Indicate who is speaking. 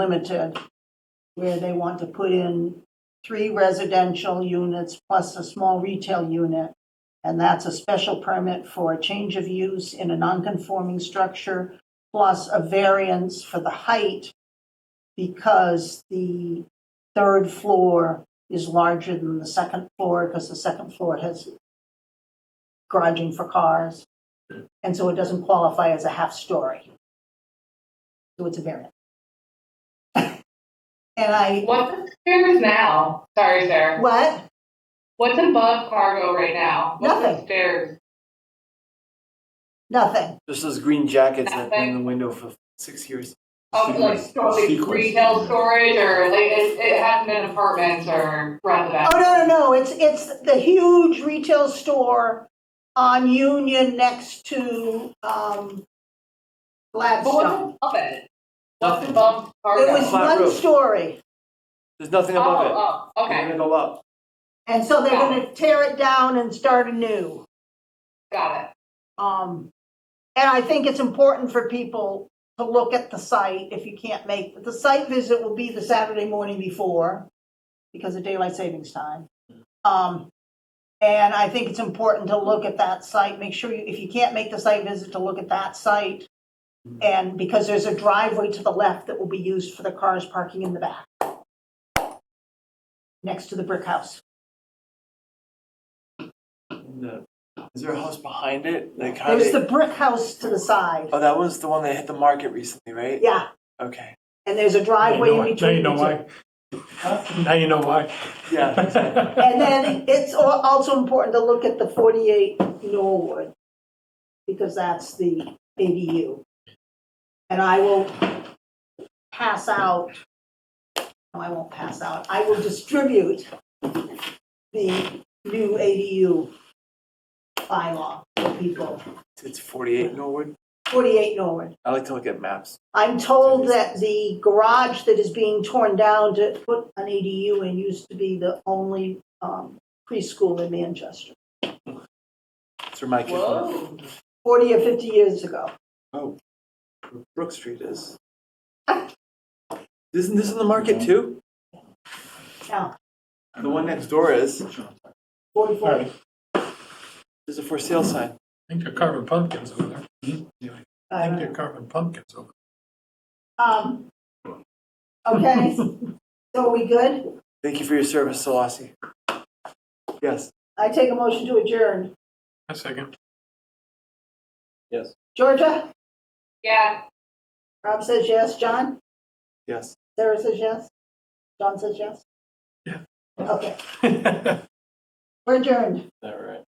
Speaker 1: Unlimited, where they want to put in three residential units plus a small retail unit. And that's a special permit for a change of use in a nonconforming structure, plus a variance for the height because the third floor is larger than the second floor because the second floor has garaging for cars. And so it doesn't qualify as a half story. So it's a variance. And I,
Speaker 2: What's upstairs now? Sorry, Sarah.
Speaker 1: what?
Speaker 2: What's above cargo right now? What's
Speaker 1: Nothing.
Speaker 2: upstairs?
Speaker 1: Nothing.
Speaker 3: Just those green jackets that have been in the window for six years.
Speaker 2: Up like probably
Speaker 4: Sequence.
Speaker 2: retail storage or like it, it hasn't been apartments or residential.
Speaker 1: Oh no, no, no! It's it's the huge retail store on Union next to um,
Speaker 2: But
Speaker 1: Gladstone.
Speaker 2: what's above it? What's above cargo?
Speaker 1: Oh, It was
Speaker 3: Oh, Flat
Speaker 1: one
Speaker 3: roof.
Speaker 1: story,
Speaker 3: There's nothing
Speaker 2: oh,
Speaker 3: above it.
Speaker 2: oh,
Speaker 3: Leave
Speaker 2: okay,
Speaker 3: it all up.
Speaker 1: and so they're going to tear it down and start anew.
Speaker 2: got it.
Speaker 1: Um, and I think it's important for people to look at the site if you can't make the site visit will be the Saturday morning before because of daylight savings time. Um, and I think it's important to look at that site. Make sure you, if you can't make the site visit, to look at that site. And because there's a driveway to the left that will be used for the cars parking in the back next to the brick house.
Speaker 3: And the- Is there a house behind it? Like how
Speaker 1: There's
Speaker 3: they,
Speaker 1: the brick house to the side.
Speaker 3: oh, that was the one that hit the market recently, right?
Speaker 1: Yeah.
Speaker 3: Okay.
Speaker 1: And there's a
Speaker 4: Now you know
Speaker 1: driveway in
Speaker 4: why- now
Speaker 1: between.
Speaker 4: you know
Speaker 1: the two.
Speaker 4: why. Now you know why.
Speaker 3: Yeah. exactly.
Speaker 1: And then it's al- also important to look at the 48 Norwood, because that's the ADU. And I will pass out, no, I won't pass out, I will distribute the new ADU bylaw to people,
Speaker 3: it's 48 Norwood.
Speaker 1: 48 Norwood.
Speaker 3: I like to look at maps.
Speaker 1: I'm told that the garage that is being torn down to put an ADU in used to be the only um, preschool in Manchester,
Speaker 3: That's where my kids live.
Speaker 2: Whoa.
Speaker 1: 40 or 50 years ago.
Speaker 3: Oh, where Brook Street is. Isn't this in the market too?
Speaker 1: Now,
Speaker 3: The one next door is.
Speaker 1: 44.
Speaker 4: All right, I
Speaker 3: There's a for sale sign.
Speaker 4: think they're carving pumpkins over there. Anyway, I
Speaker 1: I
Speaker 4: think
Speaker 1: don't
Speaker 4: they're
Speaker 1: know.
Speaker 4: carving pumpkins over
Speaker 1: Um, Okay, so are we good?
Speaker 3: Thank you for your service, Solasi. Yes.
Speaker 1: I take a motion to adjourn.
Speaker 4: there. A second.
Speaker 3: Yes.
Speaker 1: Georgia?
Speaker 2: Yeah.
Speaker 1: Rob says yes. John?
Speaker 3: Yes.
Speaker 1: Sarah says yes. John says yes?
Speaker 4: Yeah.
Speaker 1: Okay, we're adjourned.
Speaker 3: All right.